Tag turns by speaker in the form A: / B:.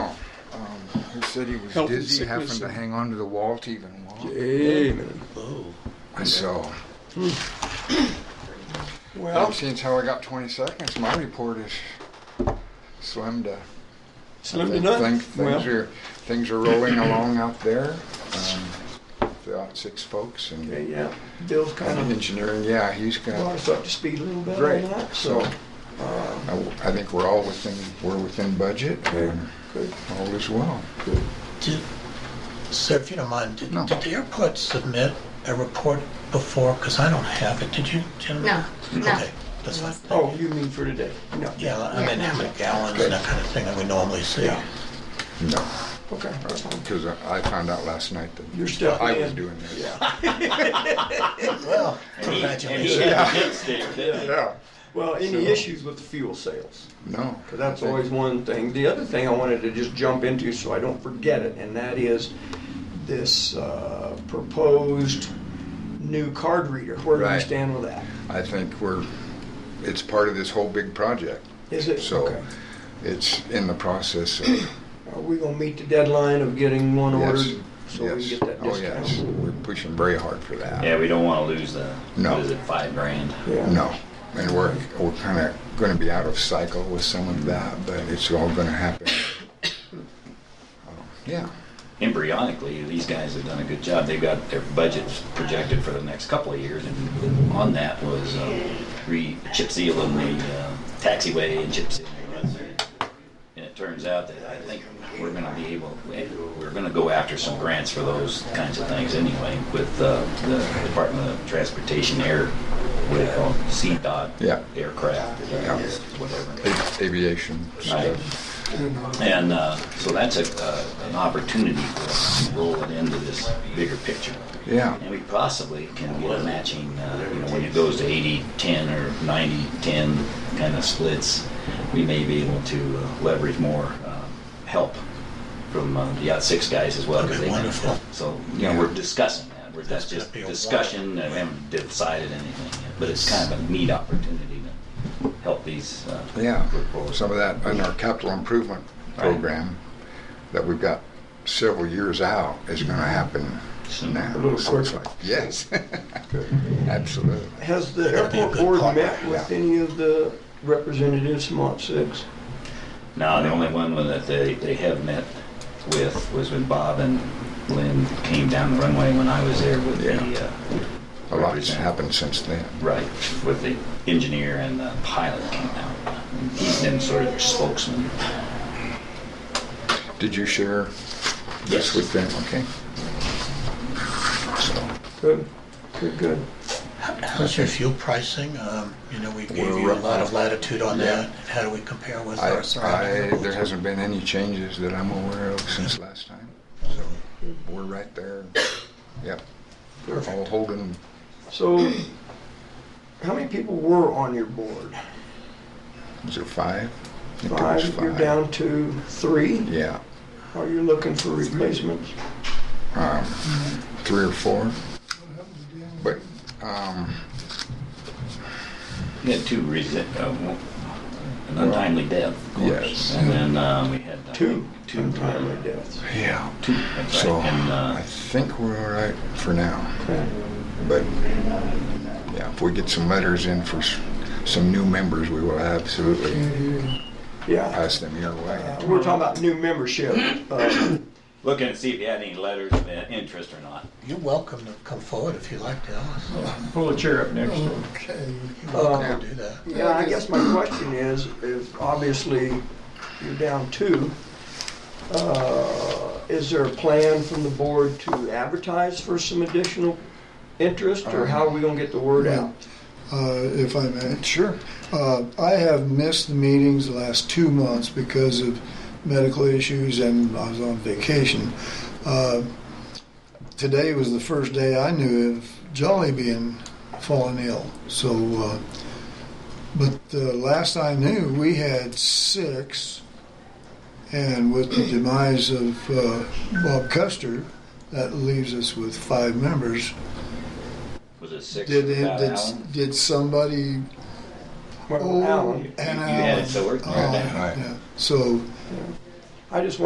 A: said Um, he was
B: Health and
A: dizzy, having
B: sickness
A: to
B: and-
A: hang onto the wall to even walk.
B: Amen.
A: So,
B: Well,
A: since how I got 20 seconds, my report is slim to.
B: slim
A: I
B: to
A: think
B: none.
A: things- things
B: Well,
A: are things are rolling along out there. Um, about six folks and,
B: okay, yeah. Bill's kind
A: and
B: of
A: engineering. Yeah, he's
B: brought
A: got
B: us up to speed a little bit
A: great.
B: on that.
A: So
B: So,
A: I, I think we're all within we're within budget. And
B: good.
A: all is well.
C: Did, sir, if you don't mind, did,
A: No.
C: did the airport submit a report before? Because I don't have it. Did you, gentlemen?
D: No, no.
C: Okay, that's fine.
B: Oh, you mean for today? No.
C: Yeah, I mean, how many gallons
B: Okay.
C: and that kind of thing that we normally see.
B: Yeah.
A: No,
B: Okay. that's fine.
A: because I I found out last night that
B: You're still
A: I was
B: in.
A: doing this.
B: Yeah.
C: Well,
E: And he
C: congratulations.
E: had a hit stick, too.
A: Yeah.
B: Well, any
A: So-
B: issues with the fuel sales?
A: No,
B: Because that's always one thing. The other thing I wanted to just jump into so I don't forget it, and that is this uh, proposed new card reader. Where do we
A: Right.
B: stand with that?
A: I think we're. It's part of this whole big project.
B: Is it?
A: So
B: okay.
A: it's in the process of.
B: Are we going to meet the deadline of getting one
A: Yes.
B: ordered? So we
A: Yes.
B: can get that
A: Oh, yes.
B: discount?
A: We're pushing very hard for that.
E: Yeah, we don't want to lose the,
A: No.
E: what is it, five grand?
B: Yeah.
A: No, and we're, we're kind of going to be out of cycle with some of that, but it's all going to happen. Oh, Yeah,
E: Embryonically, these guys have done a good job. They've got their budgets projected for the next couple of years, and on that was uh, re chip sealing the uh, taxiway and chip sealing. the roads. And it turns out that I think we're going to be able, we're going to go after some grants for those kinds of things anyway with uh, the Department of Transportation Air, what do they call it, CDOT
A: Yeah.
E: aircraft,
A: Yeah.
E: whatever.
A: a- aviation stuff.
E: And uh, so that's a, uh, an opportunity for us to roll it into this bigger picture.
A: Yeah,
E: And we possibly can get a matching, uh, you know, when it goes to 80 10 or 90 10 kind of splits, we may be able to uh, leverage more uh, help from uh, the Yacht 6 guys as well. 'cause
C: That'd be
E: they can-
C: wonderful.
E: So, you know, we're discussing that. We're, that's
C: That's
E: just
C: gonna be a
E: discussion, and we haven't decided anything yet. But it's kind of a neat opportunity to help these. Uh,
A: yeah.
E: work forward.
A: Some of that in our capital improvement program that we've got several years out is going to happen now.
B: A little
A: So it's
B: quicker.
A: like- Yes, absolutely.
B: Has the
C: That'd be a
B: airport
C: good
B: board
C: partner.
B: met with any of the representatives from Lot 6?
E: No, the only one that they, they have met with was when Bob and Lynn came down the runway when I was there with the,
A: Yeah. A
E: uh,
A: lot's happened since then.
E: right, with the engineer and the pilot came out. He's been sort of spokesman.
A: Did you share this
E: Yes.
A: with them? Okay. So,
B: Good, good, good.
C: How's your fuel pricing? Um, you know, we gave
A: We're
C: you a
A: right-
C: lot of latitude on
A: Yeah.
C: that. How do we compare with
A: I,
C: our surrounding
A: I, there
C: airports?
A: hasn't been any changes that I'm aware of since last time. So we're right there. Yep. All holding.
B: So, how many people were on your board?
A: Is there five? I think there was
B: Five, you're down to three.
A: Yeah.
B: Are you looking for replacements?
A: Um, three or four. But um,
E: We had two recent, uh, one- an untimely death, of course.
A: Yes.
E: And then, uh, we had. I
B: Two
E: think, Two.
B: untimely
E: uh,
B: deaths.
A: yeah.
E: Two, that's
A: So
E: right. And,
A: I
E: uh,
A: think we're all right for now.
B: Okay.
A: But yeah, if we get some letters in for s- some new members, we will absolutely
E: Mm-hmm.
B: Yeah.
A: pass them your way.
B: Uh, We're talking about new membership. Uh,
E: looking to see if you had any letters of uh, interest or not.
C: You're welcome to come forward if you like, Dallas.
A: Um,
F: Pull a chair up next to him.
C: Okay. You're welcome to do that.
B: Yeah, I guess my question is, if obviously you're down two, uh, is there a plan from the board to advertise for some additional interest, or how are we gonna get the word out?
G: uh, if I may.
A: Sure.
G: Uh, I have missed the meetings the last two months because of medical issues and I was on vacation. Uh, today was the first day I knew of Jolly being fallen ill. So, uh, but the last I knew, we had six, and with the demise of uh, Bob Custer, that leaves us with five members.
E: Was it six?
G: Did
E: without
G: did,
E: Alan?
G: did somebody
B: Well,
G: Oh,
B: Alan,
G: and
E: You
G: Alan.
E: had it, so we're-
G: Oh,
A: Right.
G: yeah. So
B: I just